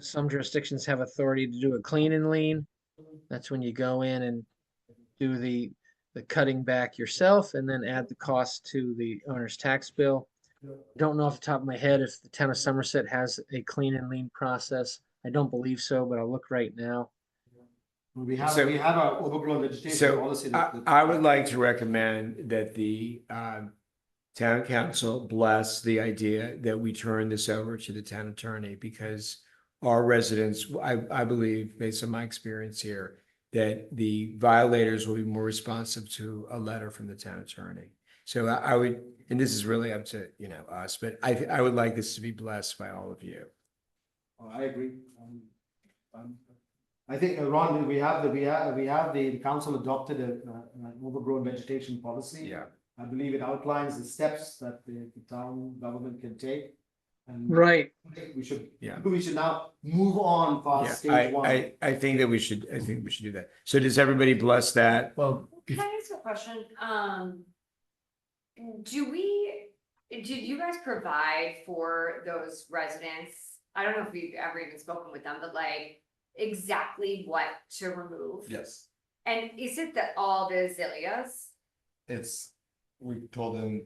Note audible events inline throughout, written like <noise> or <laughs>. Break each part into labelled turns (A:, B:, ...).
A: some jurisdictions have authority to do a clean and lean. That's when you go in and do the, the cutting back yourself and then add the cost to the owner's tax bill. Don't know off the top of my head if the town of Somerset has a clean and lean process. I don't believe so, but I'll look right now.
B: We have,
C: So-
B: we have our overgrown vegetation
C: so
B: policy. that-
C: I,
B: that-
C: I would like to recommend that the um, town council bless the idea that we turn this over to the town attorney because our residents, I, I believe, based on my experience here, that the violators will be more responsive to a letter from the town attorney. So I I would, and this is really up to, you know, us, but I, I would like this to be blessed by all of you.
B: Oh, I agree. Um, um, I think, uh, Ron, we have the, we have, we have the the council adopted a, uh, an overgrown vegetation policy. I believe it outlines the steps that the the town government can take. And
A: Right.
B: I think we should,
C: Yeah.
B: we should now move on
C: Yeah,
B: past
C: I,
B: stage one.
C: I, I think that we should, I think we should do that. So does everybody bless that?
D: Well,
E: Can I ask a question? Um, do we, do you guys provide for those residents? I don't know if we've ever even spoken with them, but like exactly what to remove?
F: Yes,
E: And is it that all the azaleas?
F: it's, we told them.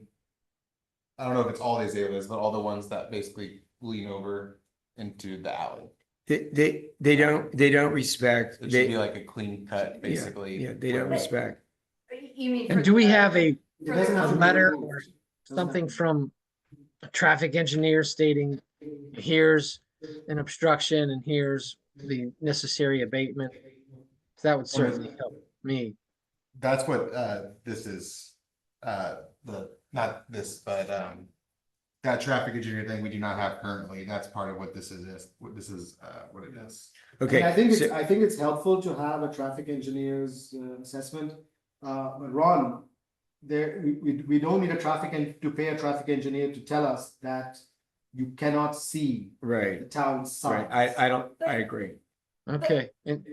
F: I don't know if it's all the azaleas, but all the ones that basically lean over into the alley.
C: They, they, they don't, they don't respect,
F: It should be
C: they,
F: like a clean cut, basically.
C: yeah, they don't
F: where-
C: respect.
E: You mean?
A: And
E: for
A: do we
E: the-
A: have a
B: It doesn't have to be
A: Letter
B: removed.
A: or
B: Doesn't have
A: something
B: to
A: from a traffic engineer stating here's an obstruction and here's the necessary abatement. That would certainly help me.
F: That's what, uh, this is, uh, the, not this, but, um. That traffic engineer thing we do not have currently, that's part of what this is, what this is, uh, what it is.
C: Okay.
B: And I think it's,
C: so-
B: I think it's helpful to have a traffic engineer's uh, assessment. Uh, but Ron, there, we, we, we don't need a traffic and to pay a traffic engineer to tell us that you cannot see
C: Right,
B: the town
C: right.
B: sign.
C: I, I don't, I agree.
A: Okay, and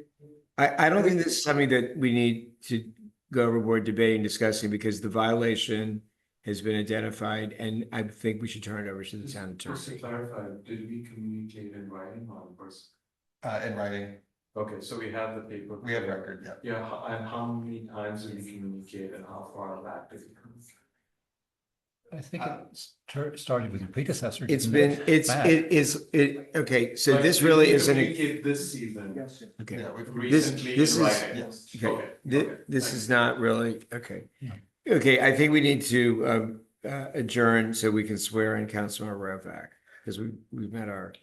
C: I, I don't think this is something that we need to go overboard debating, discussing, because the violation has been identified, and I think we should turn it over to the town
G: Just to
C: attorney.
G: clarify, did we communicate in writing on first?
F: Uh, in writing,
G: Okay, so we have the paper.
F: we have record, yeah.
G: Yeah, ho- and how many times did we communicate and how far back did we communicate?
D: I think it started with your predecessor.
C: It's been, it's, it is, it, okay, so
G: Like,
C: this
G: did
C: really
G: we
C: isn't, a-
G: Communicate this season.
B: Yes.
C: okay.
F: Yeah, we-
C: This-
G: Recently
C: this
G: in
C: is-
G: writing.
F: yes.
C: Okay, thi-
G: okay,
C: this
G: thank
C: is
G: you.
C: not really, okay.
D: No.
C: Okay, I think we need to um, uh, adjourn so we can swear in Councilor Rovak, because we, we've met our,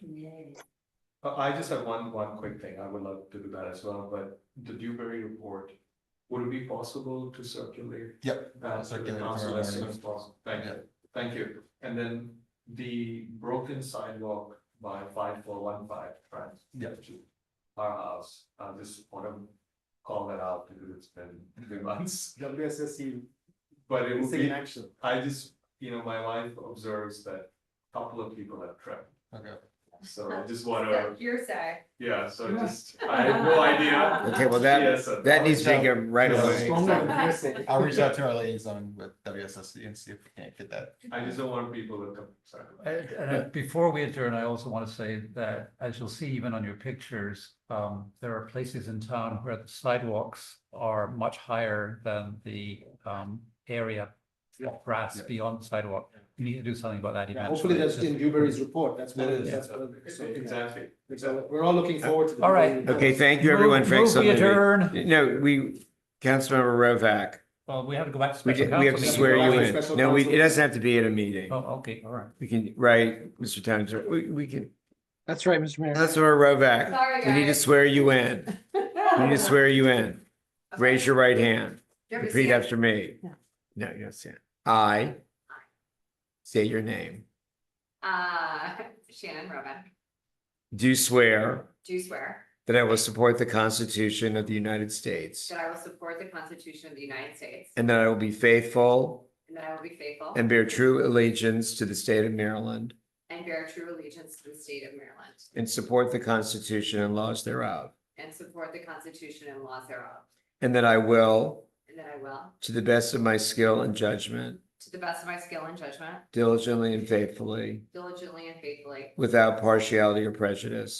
G: Uh, I just have one, one quick thing. I would love to do that as well, but the Dewberry report, would it be possible to circulate
F: Yep.
G: that to Uh, the
F: Circulate
G: council
F: for
G: as soon
F: everyone.
G: as possible? Thank you, thank you. And then the broken sidewalk by five four one five, right?
F: Yeah.
G: To Our house, I just want to call that out because it's been <laughs> three months,
B: WSSU,
G: but it would
B: missing in
G: be,
B: action.
G: I just, you know, my wife observes that a couple of people have tripped.
F: Okay.
G: So I just want to,
E: So Your side.
G: yeah, so just, I have no idea.
C: okay, well, that,
G: Yes, uh,
C: that needs to
F: I'll-
C: take him right
F: Yeah.
C: away.
B: Stronger than
F: <laughs>
B: hearsay.
F: I'll reach out to our liaison with WSSC and see if we can't get that.
G: I just don't want people to come, sorry.
D: And, and I- before we adjourn, I also want to say that, as you'll see even on your pictures, um, there are places in town where the sidewalks are much higher than the, um, area of grass
F: Yeah.
D: beyond the sidewalk. You need to do something about that
B: Yeah,
D: eventually.
B: Hopefully that's
D: It's just-
B: in Dewberry's report, that's what,
F: That is.
B: that's what.
G: Exactly,
B: So
G: exactly.
B: we're all looking forward to. the
D: All right.
B: Dewberry report.
C: Okay, thank you, everyone, for
D: Move- move we
C: excellent.
D: adjourn.
C: No, we, Councilmember Rovak,
D: Well, we have to go back to
C: we,
D: special
C: did- we have to
D: counsel.
C: swear you
B: Special
C: in. No, we, it
B: counsel.
C: doesn't have to be at a meeting.
D: Oh, okay, all right.
C: We can, right, Mr. Town Attorney, we, we can,
A: that's right, Mr. Mayor.
C: Councilmember Rovak,
E: Sorry, guys.
C: we need to swear you in. We
E: <laughs>
C: need to swear you in. Raise your right hand.
E: Okay.
C: Repeat after me.
E: No.
C: No, you don't say it. I say your name.
E: Uh, Shannon Roban,
C: Do swear
E: do swear
C: that I will support the Constitution of the United States
E: that I will support the Constitution of the United States
C: and that I will be faithful
E: and that I will be faithful
C: and bear true allegiance to the state of Maryland
E: and bear true allegiance to the state of Maryland
C: and support the Constitution and laws thereof.
E: and support the Constitution and laws thereof,
C: And that I will,
E: and that I will,
C: to the best of my skill and judgment,
E: to the best of my skill and judgment,
C: diligently and faithfully,
E: diligently and faithfully,
C: without partiality or prejudice,